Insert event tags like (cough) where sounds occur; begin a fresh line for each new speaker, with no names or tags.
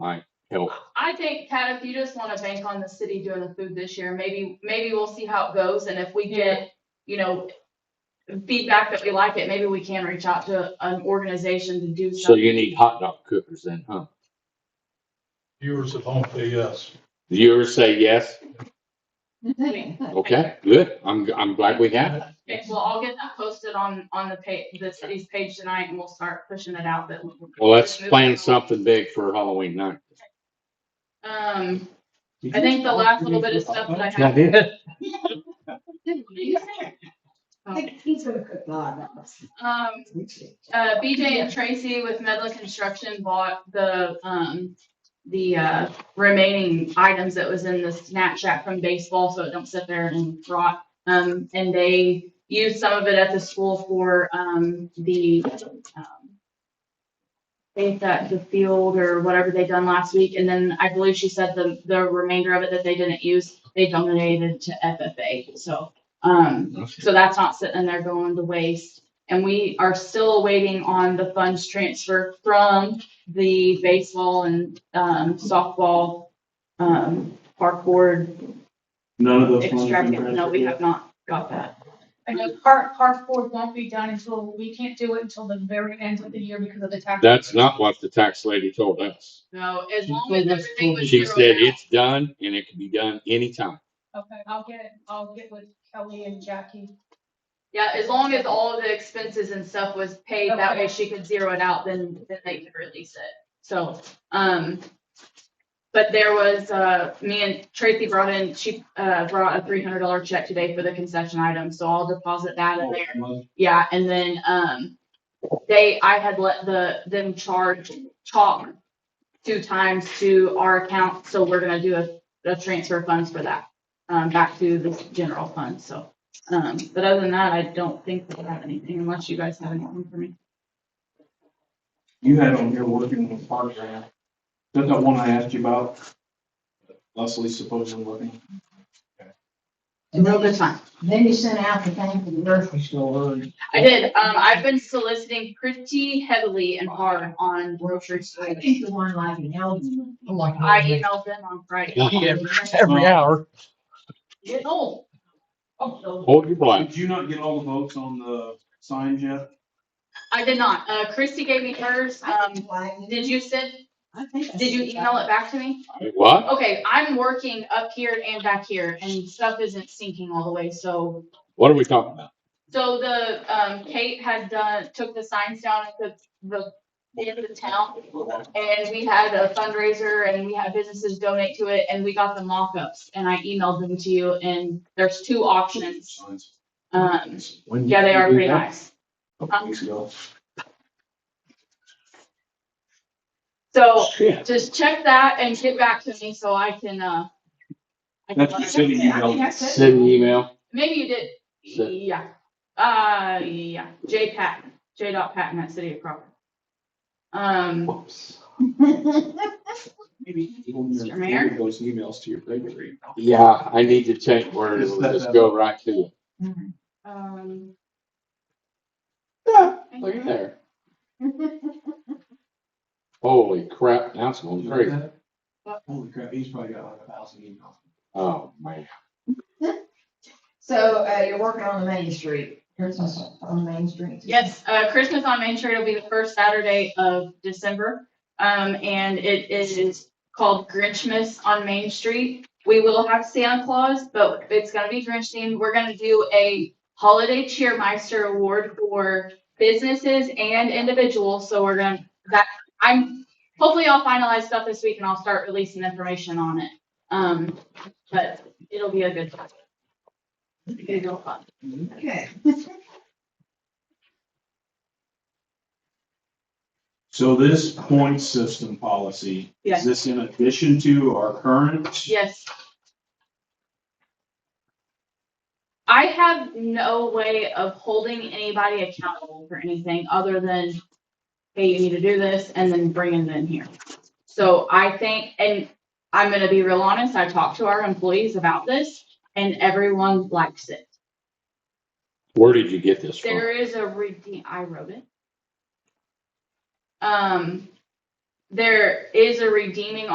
might help.
I think, Kat, if you just wanna bank on the city doing the food this year, maybe, maybe we'll see how it goes, and if we get, you know, feedback that we like it, maybe we can reach out to an organization to do
So
something.
you need hot dog cookers then, huh?
Viewers at home say yes.
The Viewers say yes.
I mean,
um,
Okay, good. I'm, I'm glad we have it.
Okay, well, I'll get that posted on, on the pa, the city's page tonight, and we'll start pushing it out that. we-
Well, let's plan something big for Halloween night.
Um, I think the last little bit of stuff that I have.
I think he's gonna cook a lot of us.
Um, uh, BJ and Tracy with Medla Construction bought the, um, the, uh, remaining items that was in the Snapchat from baseball, so it don't sit there and rot. Um, and they used some of it at the school for, um, the, um, I think that the field or whatever they done last week, and then I believe she said the, the remainder of it that they didn't use, they donated to FFA, so, um, so that's not sitting there going to waste. And we are still waiting on the funds transfer from the baseball and, um, softball, um, park board
None of those funds have been
extravagant. No,
transferred
we
yet?
have not got that.
I know park, park board won't be done until, we can't do it until the very end of the year because of the tax.
That's not what the tax lady told us.
No, as long as everything was
She
zeroed
said
out.
it's done and it can be done anytime.
Okay, I'll get, I'll get with Kelly and Jackie.
Yeah, as long as all of the expenses and stuff was paid, that way
Okay.
she could zero it out, then, then they could release it. So, um, but there was, uh, me and Tracy brought in, she, uh, brought a three hundred dollar check today for the concession item, so I'll deposit that in
Oh.
there. Yeah, and then, um, they, I had let the, them charge chalk two times to our account, so we're gonna do a, a transfer of funds for that, um, back to the general fund, so. Um, but other than that, I don't think we have anything unless you guys have anything for me.
You had on here working with Park Grant. That's that one I asked you about. Leslie supposedly looking.
And
No,
then
that's
you,
fine.
then you sent out the thing for the grocery store. and
I did, um, I've been soliciting pretty heavily and hard on grocery
I
stores.
think the one like Oh, in Elgin.
I emailed them on Friday.
Every
hour.
Get old.
Oh,
Hold your blood.
Did you not get all the votes on the signs yet?
I did not. Uh, Christy gave me hers. Um, did you send, did you email it back to me?
What?
Okay, I'm working up here and back here and stuff isn't sinking all the way, so.
What are we talking about?
So the, um, Kate had done, took the signs down at the, the end of the town. And we had a fundraiser and we had businesses donate to it and we got them mock-ups and I emailed them to you and there's two options.
Signs.
Um, yeah, they are pretty nice.
A couple weeks ago.
So
Shit.
just check that and get back to me so I can, uh. I can
That's
let
the
her-
city email.
Send an email.
Maybe you did,
So-
yeah, uh, yeah, J Patton, J dot Patton at City of Crawford. Um,
Whoops. Maybe even your
Mr. Mayor?
forward those emails to your bakery.
Yeah, I need to check where it'll just go right to it.
um,
Yeah, look at there.
(laughs)
Holy crap, now it's going crazy.
Holy crap, he's probably got like a thousand emails.
Oh, man.
So, uh, you're working on the Main Street, Christmas on Main Street.
yes, uh, Christmas on Main Street will be the first Saturday of December. Um, and it is called Grinchmas on Main Street. We will have Santa Claus, but it's gonna be Grinch themed. We're gonna do a holiday cheermeister award for businesses and individuals, so we're gonna, that, I'm, hopefully I'll finalize stuff this week and I'll start releasing information on it. Um, but it'll be a good time. It's gonna go fun.
Okay.
So this point system policy,
Yes.
is this in addition to our current?
Yes. I have no way of holding anybody accountable for anything other than, hey, you need to do this, and then bringing them here. So I think, and I'm gonna be real honest, I talked to our employees about this, and everyone likes it.
Where did you get this from?
There is a redeem, I wrote it. Um, there is a redeeming